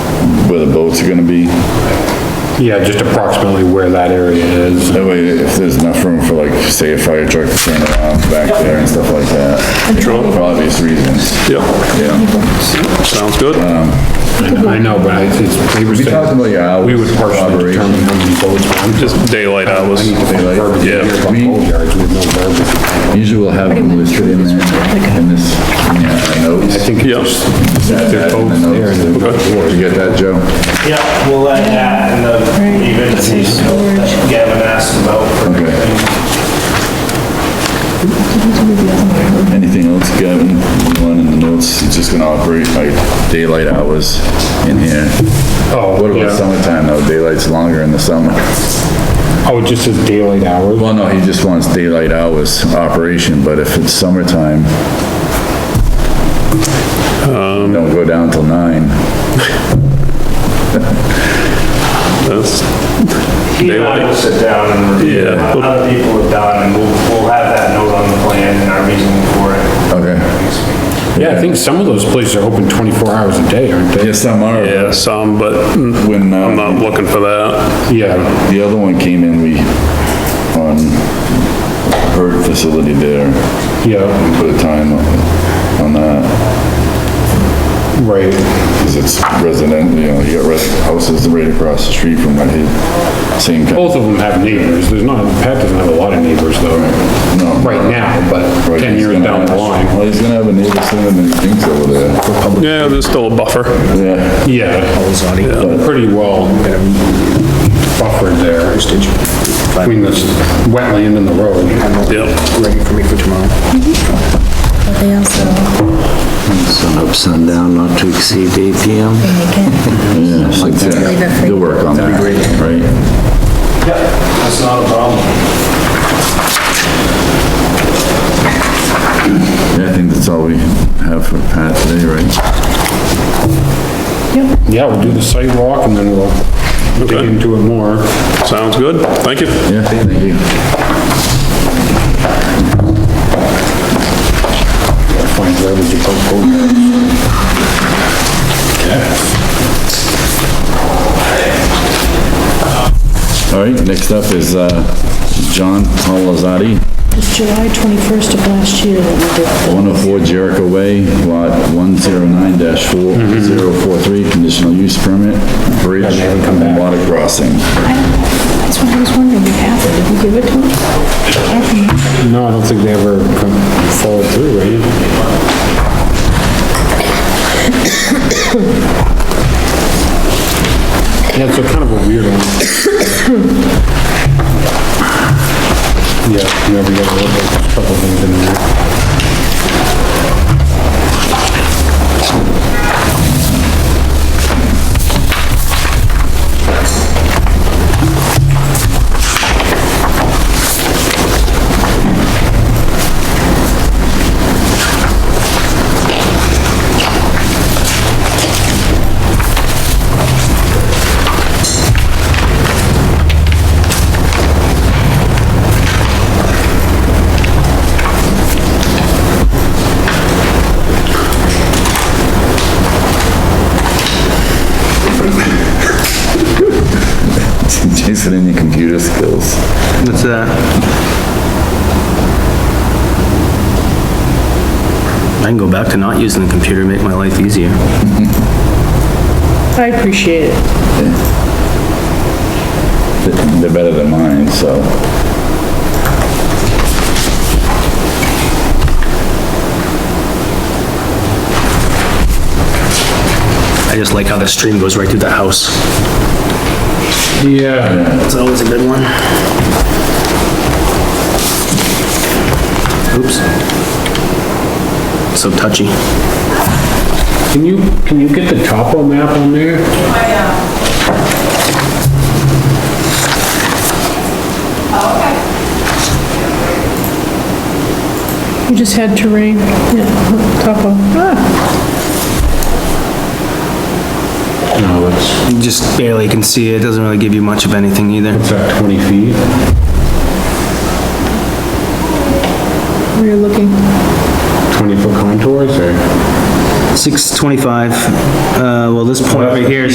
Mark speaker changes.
Speaker 1: where the boats are gonna be.
Speaker 2: Yeah, just approximately where that area is.
Speaker 1: That way, if there's enough room for like, say, a fire truck to turn around back there and stuff like that. True. For obvious reasons,
Speaker 3: Yep,
Speaker 1: yeah.
Speaker 3: sounds good.
Speaker 2: I know, but I- it's, they were
Speaker 1: We talked about
Speaker 2: saying,
Speaker 1: your hours.
Speaker 2: we would
Speaker 1: of
Speaker 2: partially
Speaker 1: operation.
Speaker 2: determine how many boats, but I'm just.
Speaker 3: Just daylight hours.
Speaker 2: I need to find
Speaker 1: Daylight.
Speaker 2: verbiage here
Speaker 3: Yeah,
Speaker 2: about
Speaker 1: we-
Speaker 2: boat yards with no verbiage.
Speaker 1: Usually we'll have them listed in there, in this, yeah,
Speaker 2: I
Speaker 1: notes.
Speaker 2: think
Speaker 3: Yeah.
Speaker 2: it's just, they're both there and they're both
Speaker 1: You get that, Joe?
Speaker 4: Yeah, we'll let that and the even piece that Gavin asked about for
Speaker 1: Okay.
Speaker 4: everything.
Speaker 1: Anything else, Gavin? You want in the notes, it's just gonna operate like daylight hours in here.
Speaker 2: Oh,
Speaker 1: What about
Speaker 2: yeah.
Speaker 1: summertime though? Daylight's longer in the summer.
Speaker 2: Oh, it just says daylight hours?
Speaker 1: Well, no, he just wants daylight hours operation, but if it's summertime, don't go down till nine.
Speaker 3: That's,
Speaker 4: He and I will sit down and review
Speaker 3: Yeah.
Speaker 4: what other people have done, and we'll, we'll have that note on the plan and our reasoning for it.
Speaker 1: Okay.
Speaker 2: Yeah, I think some of those places are open 24 hours a day, aren't they?
Speaker 1: Yes, some are.
Speaker 3: yeah, some, but mm,
Speaker 1: When,
Speaker 3: I'm
Speaker 1: uh,
Speaker 3: not looking for that.
Speaker 2: Yeah,
Speaker 1: the other one came in, we, on her facility there,
Speaker 2: yeah,
Speaker 1: we put a time on, on that.
Speaker 2: right.
Speaker 1: Because it's resident, you know, you got res- houses right across the street from Red Hill. Same kind,
Speaker 2: Both of them have neighbors. There's not, Pat doesn't have a lot of neighbors though,
Speaker 1: no.
Speaker 2: right now, but
Speaker 1: Right,
Speaker 2: 10
Speaker 1: he's
Speaker 2: years
Speaker 1: gonna
Speaker 2: down the
Speaker 1: have-
Speaker 2: line.
Speaker 1: Well, he's gonna have a neighbor sending him things over there.
Speaker 3: Yeah, there's still a buffer.
Speaker 1: Yeah,
Speaker 2: Yeah, pretty well buffered there between this wetland and the road.
Speaker 3: Yep,
Speaker 5: ready for me for tomorrow.
Speaker 6: They also
Speaker 5: Sun up, sundown, not to exceed 8 PM.
Speaker 6: make it,
Speaker 1: yeah, so it's,
Speaker 6: Leave it
Speaker 1: yeah,
Speaker 6: free.
Speaker 1: you'll work on that, right?
Speaker 4: Yep, that's not a problem.
Speaker 1: Yeah, I think that's all we have for Pat today, right?
Speaker 2: Yeah, we'll do the sidewalk and then we'll dig
Speaker 3: Okay.
Speaker 2: into it more.
Speaker 3: sounds good. Thank you.
Speaker 1: Yeah, thank you.
Speaker 2: Find verbiage about boat yards.
Speaker 1: All right, next up is, uh, John Palazzati,
Speaker 7: It's July 21st of last year that we did the,
Speaker 1: one oh four Jericho Way, lot one zero nine dash four
Speaker 2: Mm-hmm.
Speaker 1: zero four three, conditional use permit, bridge, and water crossing.
Speaker 7: I don't know. that's what I was wondering, what happened, did we give it to them? How come?
Speaker 2: No, I don't think they ever come followed through, right? Yeah, it's a kind of a weird one. Yeah, you never get a little bit, a couple things in there.
Speaker 1: Jason in your computer skills.
Speaker 5: What's that? I can go back to not using the computer, make my life easier.
Speaker 7: I appreciate it.
Speaker 1: They're better than mine, so.
Speaker 5: I just like how the stream goes right through the house.
Speaker 2: Yeah,
Speaker 5: That's always a good one. Oops. So touchy.
Speaker 2: can you, can you get the topo map on there?
Speaker 7: You just had terrain, yeah, topo. Ah,
Speaker 2: No, it's,
Speaker 5: You just barely can see it, doesn't really give you much of anything either.
Speaker 2: it's at 20 feet.
Speaker 7: we were looking,
Speaker 2: 20 foot contours or?
Speaker 5: 625, uh, well, this point over here is